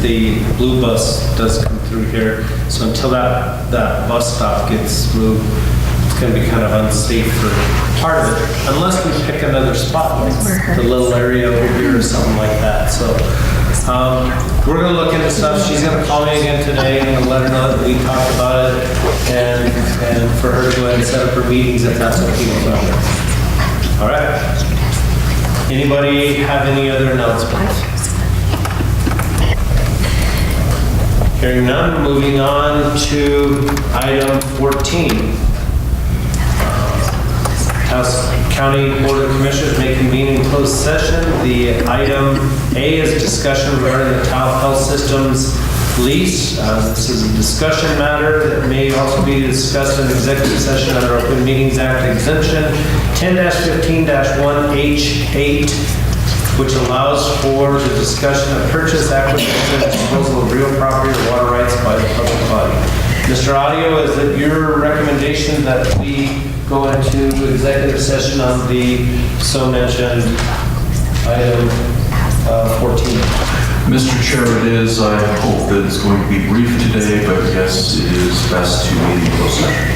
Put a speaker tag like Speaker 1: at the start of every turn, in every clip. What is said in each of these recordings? Speaker 1: the blue bus does come through here. So until that, that bus stop gets moved, it's going to be kind of unsafe for part of it, unless we pick another spot, like the little area over here or something like that. So um, we're going to look into stuff. She's going to call me again today and let her know that we talked about it and, and for her to go ahead and set up her meetings if that's what people want. All right? Anybody have any other announcements? Hearing none, moving on to item 14. House County Board of Commissioners may convene in closed session. The item A is discussion regarding the Tahoe Health Systems lease. Uh, This is a discussion matter that may also be discussed in executive session under Open Meetings Act exemption 10-15-1H8 which allows for the discussion of purchase, acquisition, and disposal of real property or water rights by the public body. Mr. Audio, is it your recommendation that we go into executive session on the so mentioned item uh, 14?
Speaker 2: Mr. Chair, it is, I hope that it's going to be brief today, but yes, it is best to meet in closed session.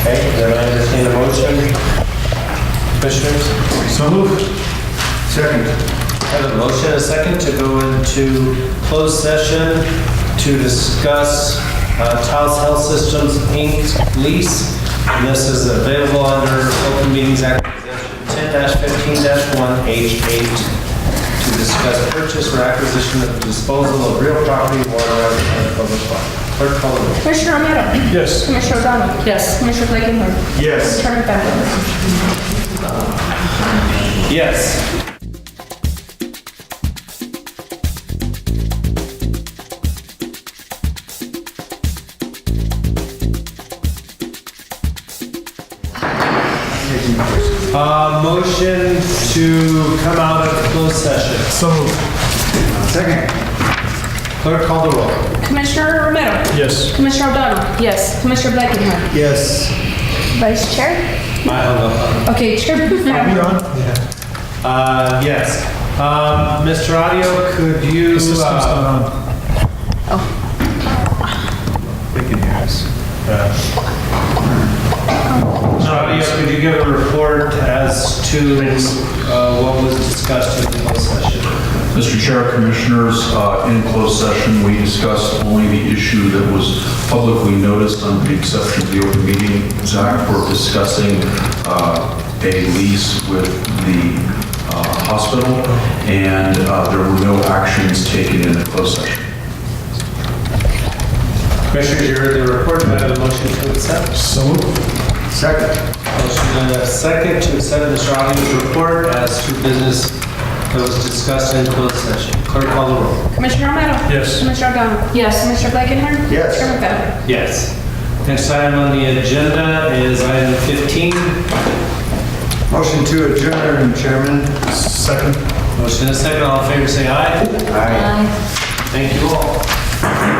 Speaker 1: Okay, then I entertain a motion. Commissioners? So moved. Second. Have a motion, and a second, to go into closed session to discuss uh, Taos Health Systems, Inc. lease. And this is available under Open Meetings Act ten fifteen one H eight to discuss purchase or acquisition of disposal of real property, water, rights, and public property. Clerk call the roll.
Speaker 3: Commissioner Romero? Yes. Commissioner O'Donnell? Yes. Commissioner Blakenher? Yes. Chairman Bender?
Speaker 1: Yes. Uh, motion to come out of closed session. So Second. Clerk call the roll.
Speaker 3: Commissioner Romero?
Speaker 1: Yes.
Speaker 3: Commissioner O'Donnell? Yes. Commissioner Blakenher?
Speaker 1: Yes.
Speaker 3: Vice Chair?
Speaker 1: I hung up on it.
Speaker 3: Okay, Chair.
Speaker 1: Uh, yes. Um, Mr. Audio, could you? uh, The system's not on. Oh. They can hear us. Mr. Uh, Audio, could you give a report as to uh, what was discussed in the closed session?
Speaker 2: Mr. Chair, Commissioners, uh, in closed session, we discussed only the issue that was publicly noticed under the exception of the open meeting act. We're discussing uh, a lease with the uh, hospital, and uh, there were no actions taken in the closed session.
Speaker 1: Commissioners, you heard the report. Do I have a motion to accept? So Second. Motion and a second to accept Mr. Audio's report as to business that was discussed in closed session. Clerk call the roll.
Speaker 3: Commissioner Romero?
Speaker 1: Yes.
Speaker 3: Commissioner O'Donnell? Yes. Commissioner Blakenher? Yes. Chairman Bender?
Speaker 1: Yes. Next item on the agenda is item 15.
Speaker 4: Motion to adjourn, Chairman. Second.
Speaker 1: Motion and a second, all in favor, say aye.
Speaker 4: Aye.
Speaker 1: Thank you all.